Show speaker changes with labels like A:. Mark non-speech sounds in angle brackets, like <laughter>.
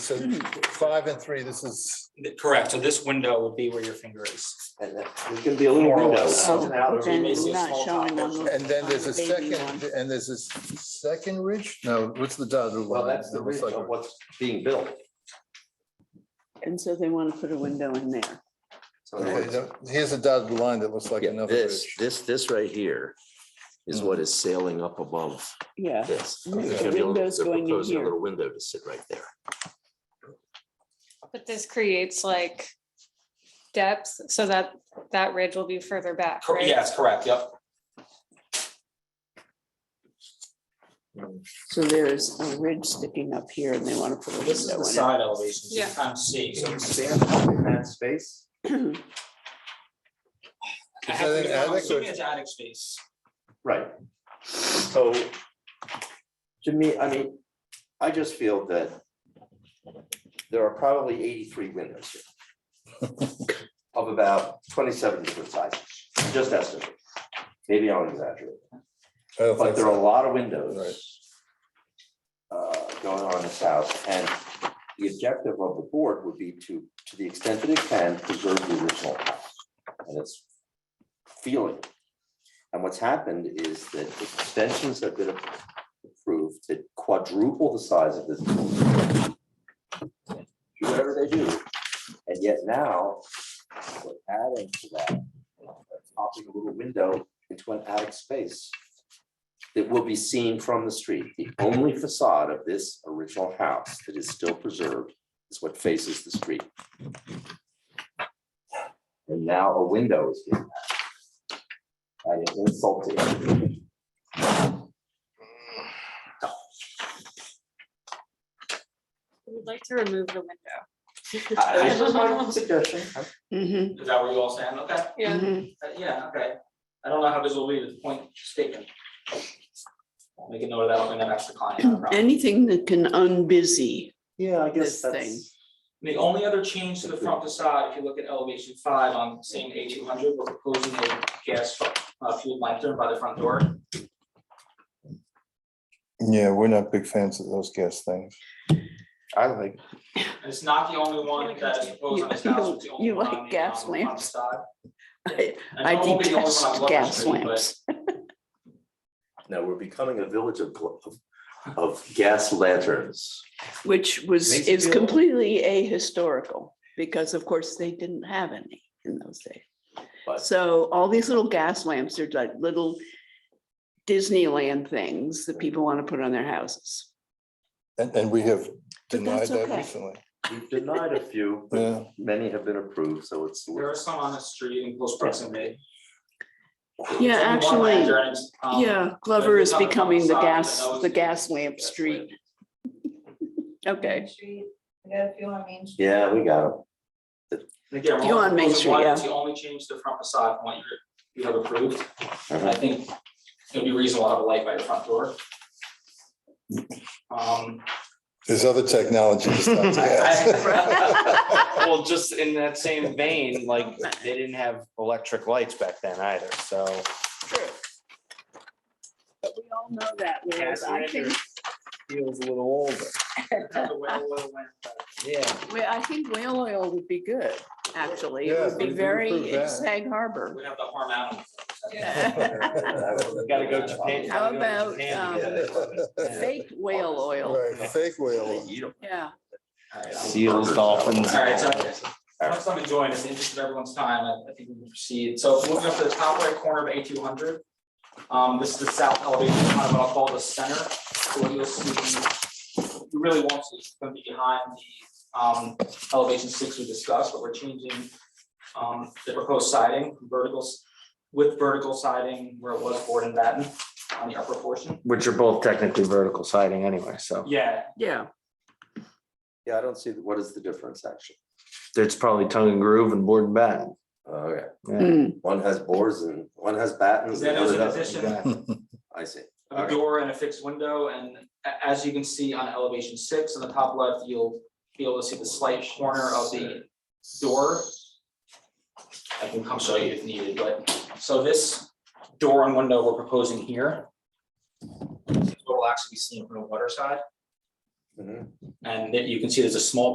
A: So five and three, this is,
B: Th- Correct, so this window would be where your finger is.
C: And that- there's gonna be a little
B: More or
C: window.
B: less.
C: out and out,
D: Oh,
C: or you may
D: then
C: see a
D: not
C: small
D: showing
C: top
D: on
C: portion.
D: the-
A: and then there's a
D: On the baby
A: second, and there's a second ridge? No, what's the dotted line?
C: Well, that's the reason of what's being built.
D: And so they want to put a window in there.
C: So in other
A: Okay,
C: words,
A: now, Here's a dotted line that looks like
E: Yeah,
A: another
E: this,
A: ridge.
E: this, this right here is
A: Hmm.
C: Mm-hmm.
E: what is sailing up above
D: Yeah.
E: this.
D: Mm,
E: There's
D: the
E: gonna be a-
D: window's
E: they're
D: going in
E: proposing A
D: here.
E: little window to sit right there.
F: But this creates like depth so that that ridge will be further back,
B: Cor-
F: right?
B: Yes, correct, yep.
D: So there's a ridge sticking up here and they want to put a
B: This is the
D: window
B: side elevation, so you
F: Yeah.
B: can kind of see.
C: Can
B: so
C: you
B: it's-
C: stand up in that space?
D: in it.
B: I have to
A: Is that
B: be-
A: an
B: I'm
A: attic or-
B: assuming it's attic space.
C: Right. So to me, I mean, I just feel that there are probably eighty-three windows here
E: <laughs>
C: of about twenty-seven different sizes, just estimate. Maybe I'll exaggerate.
A: I don't
C: But
A: think
C: there are
A: so.
C: a lot of windows uh, going on in this house, and the objective of the board would be to, to the extent that it can, preserve the original house and its feeling. And what's happened is that extensions have been approved to quadruple the size of this. building. Do whatever they do, and yet now, we're adding to that, popping a little window into an attic space that will be seen from the street. The only facade of this original house that is still preserved is what faces the street. And now a window is being added. That is insulting.
F: We'd like to remove the window.
C: I- I just my own suggestion.
D: Mhm,
B: Is that where you all stand? Okay,
F: Yeah,
D: mhm.
B: Uh, yeah, okay. I don't know how this will be with point statement. Make a note of that, I'll bring that back to the client. no problem.
D: Anything that can unbusy.
C: Yeah, I
D: guess This that's-
B: The only other change to the front facade, if you look at elevation five on same A two hundred, we're proposing a gas uh, fueled lantern by the front door.
A: Yeah, we're not big fans of those gas things.
C: I like,
B: And It's not the only one that is proposed on this
D: You-
B: house.
D: <laughs>
B: it's the only
D: you
B: one
D: like
B: on the,
D: gas
B: um, on the
D: lamps.
B: side.
D: <laughs> I
B: And
D: I
B: it won't be the only one on
D: detest
B: Bluffton
D: gas
B: Street, but
D: lamps.
C: now we're becoming a village of, of, of gas lanterns.
D: Which was,
C: Makes you
D: is
C: feel-
D: completely ahistorical because of course they didn't have any in those days.
C: But-
D: So all these little gas lamps are like little Disneyland things that people want to put on their houses.
A: And, and we have denied
D: that's
A: that
D: okay.
A: recently.
C: We've denied a few, but
A: Yeah,
C: many have been approved, so it's.
B: There are some on the street in close proximity.
D: Yeah,
B: There's only one
D: actually,
B: lantern, it's, um,
D: Yeah,
B: but
D: Glover
B: it's
D: is
B: on the
D: becoming the
B: side,
D: gas,
B: but no,
D: the
B: it's-
D: gas lamp
B: Gas
D: street.
B: lamp.
D: Okay, <laughs>
G: Main Street, I got a few on Main Street.
C: Yeah, we got them.
B: And Again,
D: You're
B: we're
D: on Main
B: only proposing one,
D: Street,
B: it's the only change to the front facade from what you're, you have approved. And I
C: Mhm.
B: think it'd be reasonable to have a light by your front door. Um,
A: there's other technology
C: <laughs>
A: besides
B: I-
A: gas.
B: I-
H: Well, just in that same vein, like, they didn't have electric lights back then either, so.
D: but we all know that, whereas
H: Gas
D: I think,
H: lantern Feels a little older.
B: Another way, a little way.
H: Yeah.
D: well, I think whale oil would be good, actually. It
A: Yeah,
D: would
A: we
D: be
A: do
D: very
A: approve that.
D: Sag Harbor.
B: We have the harm animal.
H: Gotta go Japan.
D: How
H: gotta go
D: about, um,
H: Japan to get it.
D: Fake whale oil,
A: <laughs> Right, Fake <laughs> whale.
D: yeah.
B: All right, I'm-
H: Seals, dolphins.
B: All right, so once I'm enjoying this, in the interest of everyone's time, I I think we can proceed. So moving up to the top right corner of A two hundred. Um, this is the south elevation, kind of what I'll call the center. So what you'll see, you really won't see, it's gonna be behind the um elevation six we discussed, but we're changing um the proposed siding, verticals with vertical siding where it was board and batten on the upper portion.
H: Which are both technically vertical siding anyway, so
B: Yeah,
D: Yeah,
C: Yeah, I don't see, what is the difference actually?
H: it's probably tongue and groove and board and bat.
C: Okay,
H: Yeah.
D: Mm,
C: Uh, one has boards and one has battens.
B: then
C: and
B: there's
C: the
B: an
C: other doesn't.
B: addition
C: I see.
B: a door and a fixed window, and a- as you can see on elevation six on the top left, you'll be able to see the slight corner of the door. I can come show you if needed, but, so this door and window we're proposing here. Will actually be seen from the water side.
C: Mhm.
B: And that you can see there's a small